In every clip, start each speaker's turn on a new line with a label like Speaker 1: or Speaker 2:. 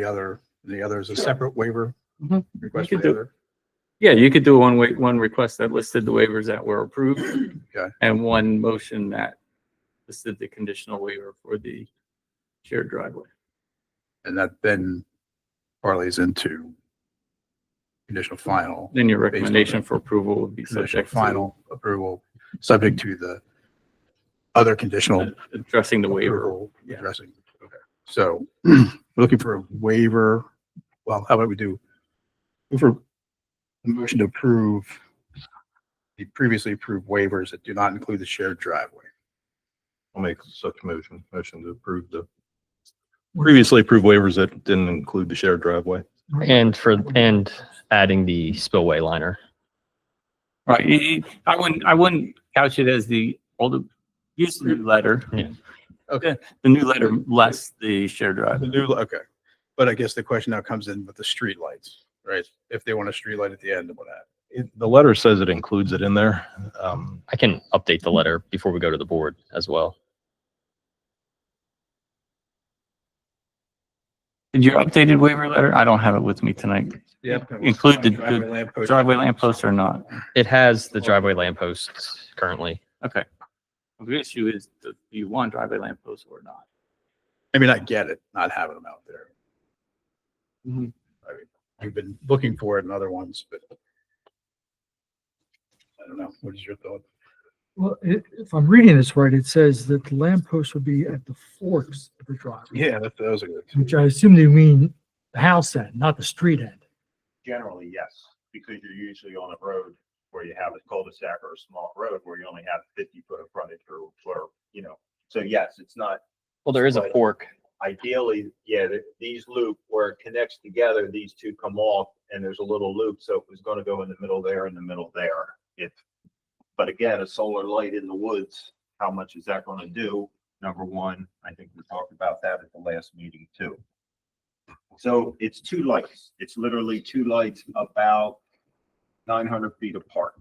Speaker 1: the other, the other is a separate waiver
Speaker 2: Mhm.
Speaker 1: request
Speaker 2: You
Speaker 1: for
Speaker 2: could
Speaker 1: the
Speaker 2: do-
Speaker 1: other.
Speaker 2: Yeah, you could do one wait, one request that listed the waivers that were approved.
Speaker 1: Okay.
Speaker 2: And one motion that listed the conditional waiver for the shared driveway.
Speaker 1: And that then parlays into conditional final,
Speaker 2: Then your
Speaker 1: on
Speaker 2: recommendation for approval would be
Speaker 1: conditional
Speaker 2: subject to
Speaker 1: final approval, subject to the other conditional
Speaker 2: addressing the waiver.
Speaker 1: approval
Speaker 2: yeah.
Speaker 1: addressing. Okay. So we're looking for a waiver. Well, how about we do move for a motion to approve the previously approved waivers that do not include the shared driveway.
Speaker 3: I'll make such motion, motion to approve the previously approved waivers that didn't include the shared driveway.
Speaker 4: And for, and adding the spillway liner.
Speaker 2: Right, y- y- I wouldn't, I wouldn't couch it as the old, use the new letter.
Speaker 4: Yeah.
Speaker 1: Okay.
Speaker 2: The new letter less the shared
Speaker 1: The
Speaker 2: driveway.
Speaker 1: new, okay. But I guess the question now comes in with the streetlights, right? If they want a streetlight at the end and what that.
Speaker 3: It, the letter says it includes it in there. Um,
Speaker 4: I can update the letter before we go to the board as well.
Speaker 2: Did your updated waiver letter? I don't have it with me tonight. Include the-
Speaker 1: Driveway lamp post.
Speaker 2: Driveway lamp posts or not?
Speaker 4: It has
Speaker 1: Oh.
Speaker 4: the driveway lampposts currently.
Speaker 2: Okay. The issue is, do you want driveway lamp posts or not?
Speaker 1: I mean, I get it, not having them out there.
Speaker 2: Mhm.
Speaker 1: I mean, I've been looking for it in other ones, but I don't know. What is your thought?
Speaker 5: Well, i- if I'm reading this right, it says that the lamppost would be at the forks of the driveway,
Speaker 1: Yeah, that was a good.
Speaker 5: which I assume they mean the house end, not the street end.
Speaker 6: Generally, yes, because you're usually on a road where you have a cul-de-sac or a small road where you only have fifty foot of frontage or, or, you know. So yes, it's not
Speaker 4: Well, there is a
Speaker 6: Right.
Speaker 4: fork.
Speaker 6: ideally, yeah, th- these loop where it connects together, these two come off and there's a little loop. So it was gonna go in the middle there, in the middle there. If, but again, a solar light in the woods, how much is that gonna do? Number one, I think we talked about that at the last meeting too. So it's two lights. It's literally two lights about nine hundred feet apart.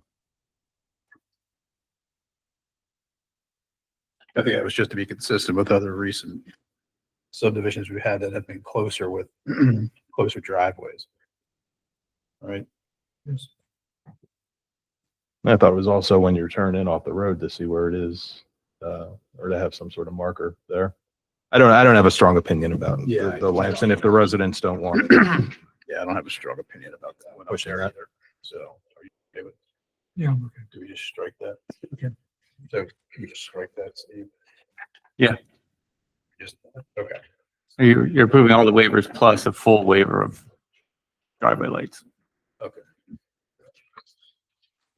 Speaker 1: I think that was just to be consistent with other recent subdivisions we've had that have been closer with closer driveways. All right.
Speaker 5: Yes.
Speaker 3: I thought it was also when you're turning in off the road to see where it is, uh, or to have some sort of marker there. I don't, I don't have a strong opinion about
Speaker 1: Yeah.
Speaker 3: the the lamps and if the residents don't want it.
Speaker 1: Yeah, I don't have a strong opinion about that one up
Speaker 3: Pushing
Speaker 1: there
Speaker 3: that.
Speaker 1: either. So are you okay with
Speaker 5: Yeah, I'm okay.
Speaker 1: Do we just strike that?
Speaker 5: Okay.
Speaker 1: So can you just strike that, Steve?
Speaker 2: Yeah.
Speaker 1: Just, okay.
Speaker 2: So you're, you're approving all the waivers plus a full waiver of driveway lights.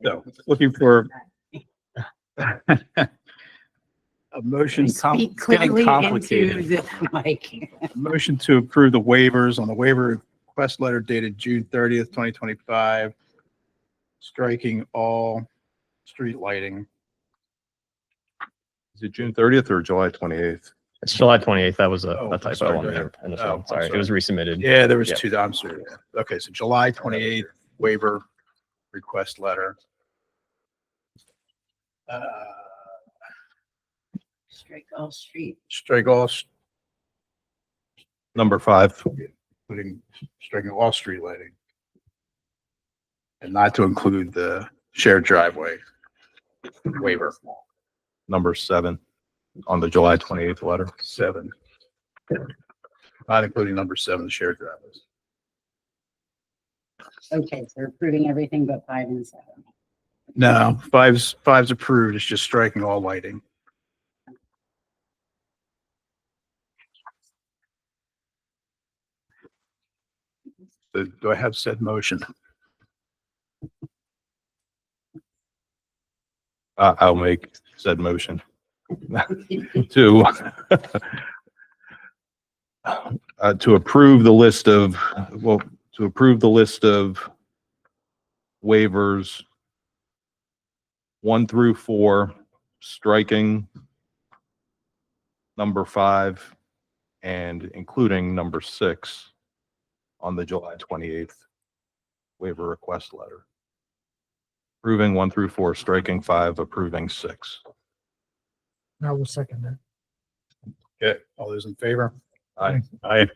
Speaker 1: So looking for a motion,
Speaker 2: It's com-
Speaker 7: Speak
Speaker 2: it's getting
Speaker 7: clearly into
Speaker 2: complicated.
Speaker 7: the mic.
Speaker 1: motion to approve the waivers on the waiver request letter dated June thirtieth, twenty twenty-five, striking all street lighting.
Speaker 3: Is it June thirtieth or July twenty-eighth?
Speaker 4: It's July 28th. That was a
Speaker 1: Oh,
Speaker 4: a
Speaker 1: I'm
Speaker 4: typo
Speaker 1: sorry,
Speaker 4: on
Speaker 1: go ahead.
Speaker 4: there. in the
Speaker 1: Oh,
Speaker 4: form.
Speaker 1: I'm
Speaker 4: Sorry, it
Speaker 1: sorry.
Speaker 4: was resubmitted.
Speaker 1: Yeah, there was
Speaker 4: Yeah.
Speaker 1: two, I'm sorry. Okay, so July twenty-eighth waiver request letter. Uh,
Speaker 7: Strike all street.
Speaker 1: strike all,
Speaker 3: Number five.
Speaker 1: including striking all street lighting. And not to include the shared driveway waiver
Speaker 3: number seven on the July twenty-eighth letter.
Speaker 1: seven. Not including number seven, shared driveways.
Speaker 7: Okay, so we're approving everything but five and seven.
Speaker 1: No, five's, five's approved. It's just striking all lighting. So Do I have said motion?
Speaker 3: I, I'll make said motion to uh, to approve the list of, well, to approve the list of waivers one through four, striking number five and including number six on the July twenty-eighth waiver request letter. Approving one through four, striking five, approving six.
Speaker 5: I will second that.
Speaker 1: Okay, all those in favor?
Speaker 3: Aye.
Speaker 1: Aye.